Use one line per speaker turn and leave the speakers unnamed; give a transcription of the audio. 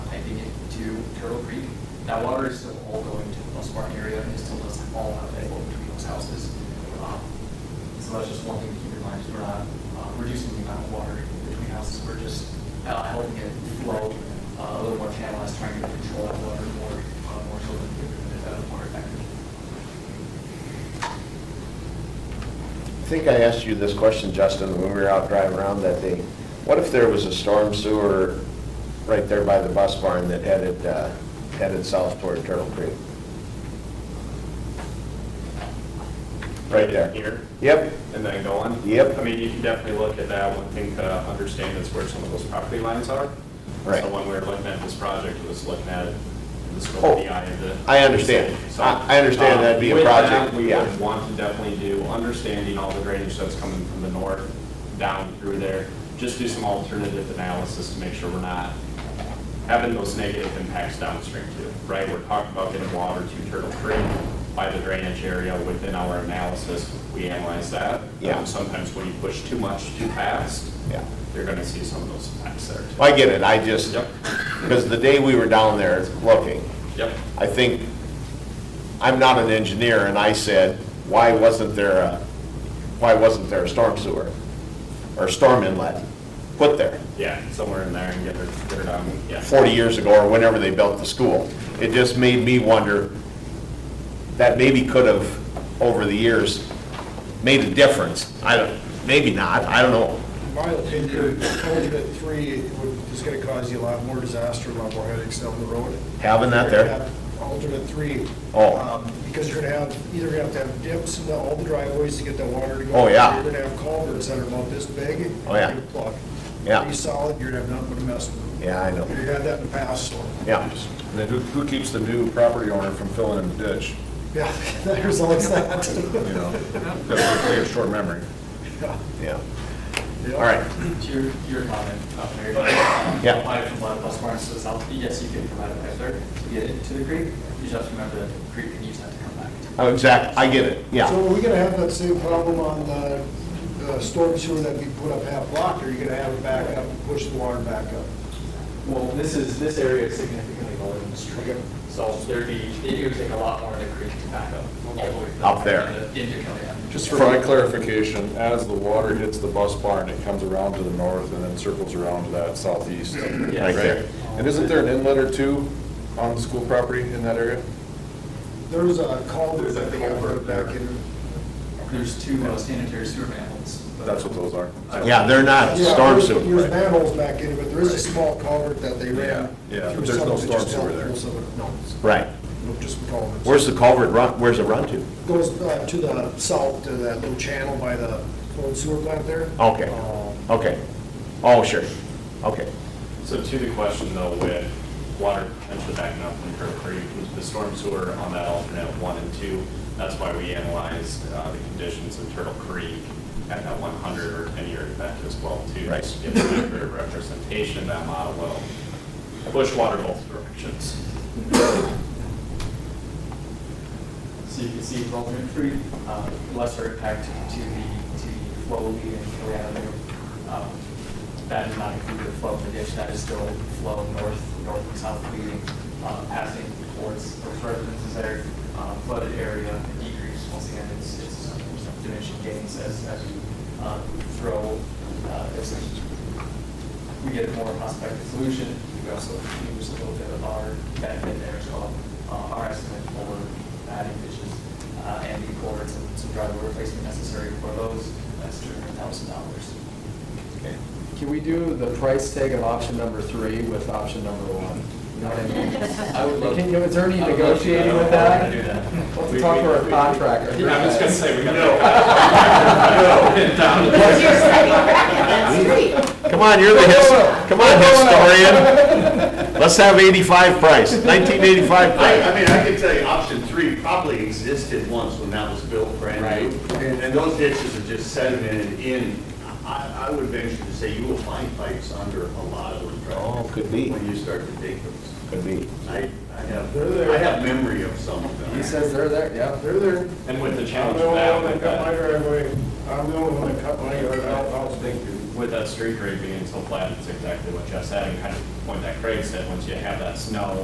creek. That water is still all going to the bus barn area, and it still doesn't all have to go between those houses. Um, So that's just one thing to keep in mind, is we're not uh, reducing the amount of water between houses, we're just uh, helping it flow uh, a little more channelized, trying to control that water more, uh, more so that it's uh, more effective.
I think I asked you this question, Justin, when we were out driving around that day. What if there was a storm sewer right there by the bus barn that headed, uh, headed south toward Turtle Creek? Right there.
Here,
Yep,
and then going.
Yep.
I mean, you can definitely look at that. One thing to understand is where some of those property lines are.
Right.
So when we were looking at this project, it was looking at the scope
Oh,
of the eye of the.
I understand.
So,
I- I understand
um,
that'd be a
with that,
project,
We
yeah.
would want to definitely do, understanding all the drainage that's coming from the north down through there. Just do some alternative analysis to make sure we're not having those negative impacts downstream too, right? We're talking about getting water to Turtle Creek by the drainage area within our analysis, we analyze that.
Yeah.
Um, Sometimes when you push too much too fast,
yeah.
you're gonna see some of those impacts there too.
Well, I get it, I just,
Yep.
because the day we were down there looking,
Yep,
I think, I'm not an engineer, and I said, why wasn't there a, why wasn't there a storm sewer? Or storm inlet put there?
yeah, somewhere in there and get her, get her down, yeah.
40 years ago or whenever they built the school. It just made me wonder, that maybe could have, over the years, made a difference. I don't, maybe not, I don't know.
My opinion, alternate three would- is going to cause you a lot more disaster, a lot more headaches down the road.
Having that there?
You're gonna have Alternate three.
Oh.
um, Because you're going to have, either you're going to have to have dips in the- all the driveways to get that water to go.
Oh, yeah.
You're going to have culverts that are about this big.
Oh, yeah.
You plug.
Yeah.
Pretty solid, you're going to have nothing to mess with.
Yeah, I know.
You had that in the past, so,
Yeah,
And then who, who keeps the new property owner from filling in the ditch,
yeah, there's always that.
you know? Because they have short memory.
Yeah.
yeah.
Yeah.
All right,
To your, your comment, uh, Mayor.
Yeah.
Apply from one of the bus barns to the south, yes, you can provide a pipe there to get it to the creek. You just have to remember that the creek can use that to come back.
Oh, exact, I get it,
So
yeah.
are we gonna have that same problem on the uh, storm sewer that we put up half block, or are you gonna have it back up and push the water back up?
Well, this is, this area is significantly lower than the stream. So there'd be, it would take a lot more of the creek to back up. all the way to the-
Up there.
Into Kelly Avenue.
Just for my clarification, as the water hits the bus barn, it comes around to the north and then circles around to that southeast.
Right there.
And isn't there an inlet or two on the school property in that area?
There's a culvert that they gotta put back in.
There's two uh, sanitary sewer manholes. but-
That's what those are.
Yeah, they're not
Yeah,
Ah, storm
there's-
sewer.
There's manholes back in, it, but there is a small culvert that they ran.
Yeah, yeah, but
through
there's no
some that
storm
just
sewer
held
there.
most of it. No, it's-
Right.
no, just culverts.
Where's the culvert run, where's it run to?
Goes uh, to the south, to that little channel by the old sewer plant there.
Okay,
Um,
okay. Oh, sure, okay.
So to the question though, with water potentially backing up from Turtle Creek, with the storm sewer on that alternate one and two, that's why we analyzed uh, the conditions in Turtle Creek at that 100 or 10-year event as well too.
Right.
Just to Get an accurate representation of that model will push water both directions.
So you can see from alternate three, um, lesser impact to the, to the flow lead and Kelly Avenue. Um, That is not included the flow of the ditch, that is still flow north, north and south leading, uh, passing towards those residences that are uh, flooded area and decrease. Once again, it's, it's diminishing gains as, as you uh, throw, uh, as we get a more prospective solution. We also use a little bit of our benefit there as well, Uh, our estimate for adding ditches uh, and the culverts and some driveway replacement necessary for those, that's two hundred thousand dollars.
Can we do the price tag of option number three with option number one? You know what I mean?
I would love-
Can you- Is there any
I would love to-
negotiating with
I
that?
would love to do that.
Let's talk to our contractor.
Yeah, I was gonna say, we gotta.
Because you're setting a record, that's great.
Come on, you're the his, come on, historian. Let's have 85 price, 1985
I, I
price.
mean, I can tell you, option three probably existed once when that was built brand new. And, and those ditches are just sedimented in, I, I would venture to say you will find pipes under a lot of those
Oh,
driveways.
could be,
When you start to dig those.
could be.
I, I have, I have memory of some of them.
He says they're there, yeah.
They're there.
And with the challenge of that, with that-
driveway, I'm the only one that cut my yard out, I'll stink you.
with that street grade being so flat, it's exactly what Jeff's adding, kind of the point that Craig said, once you have that snow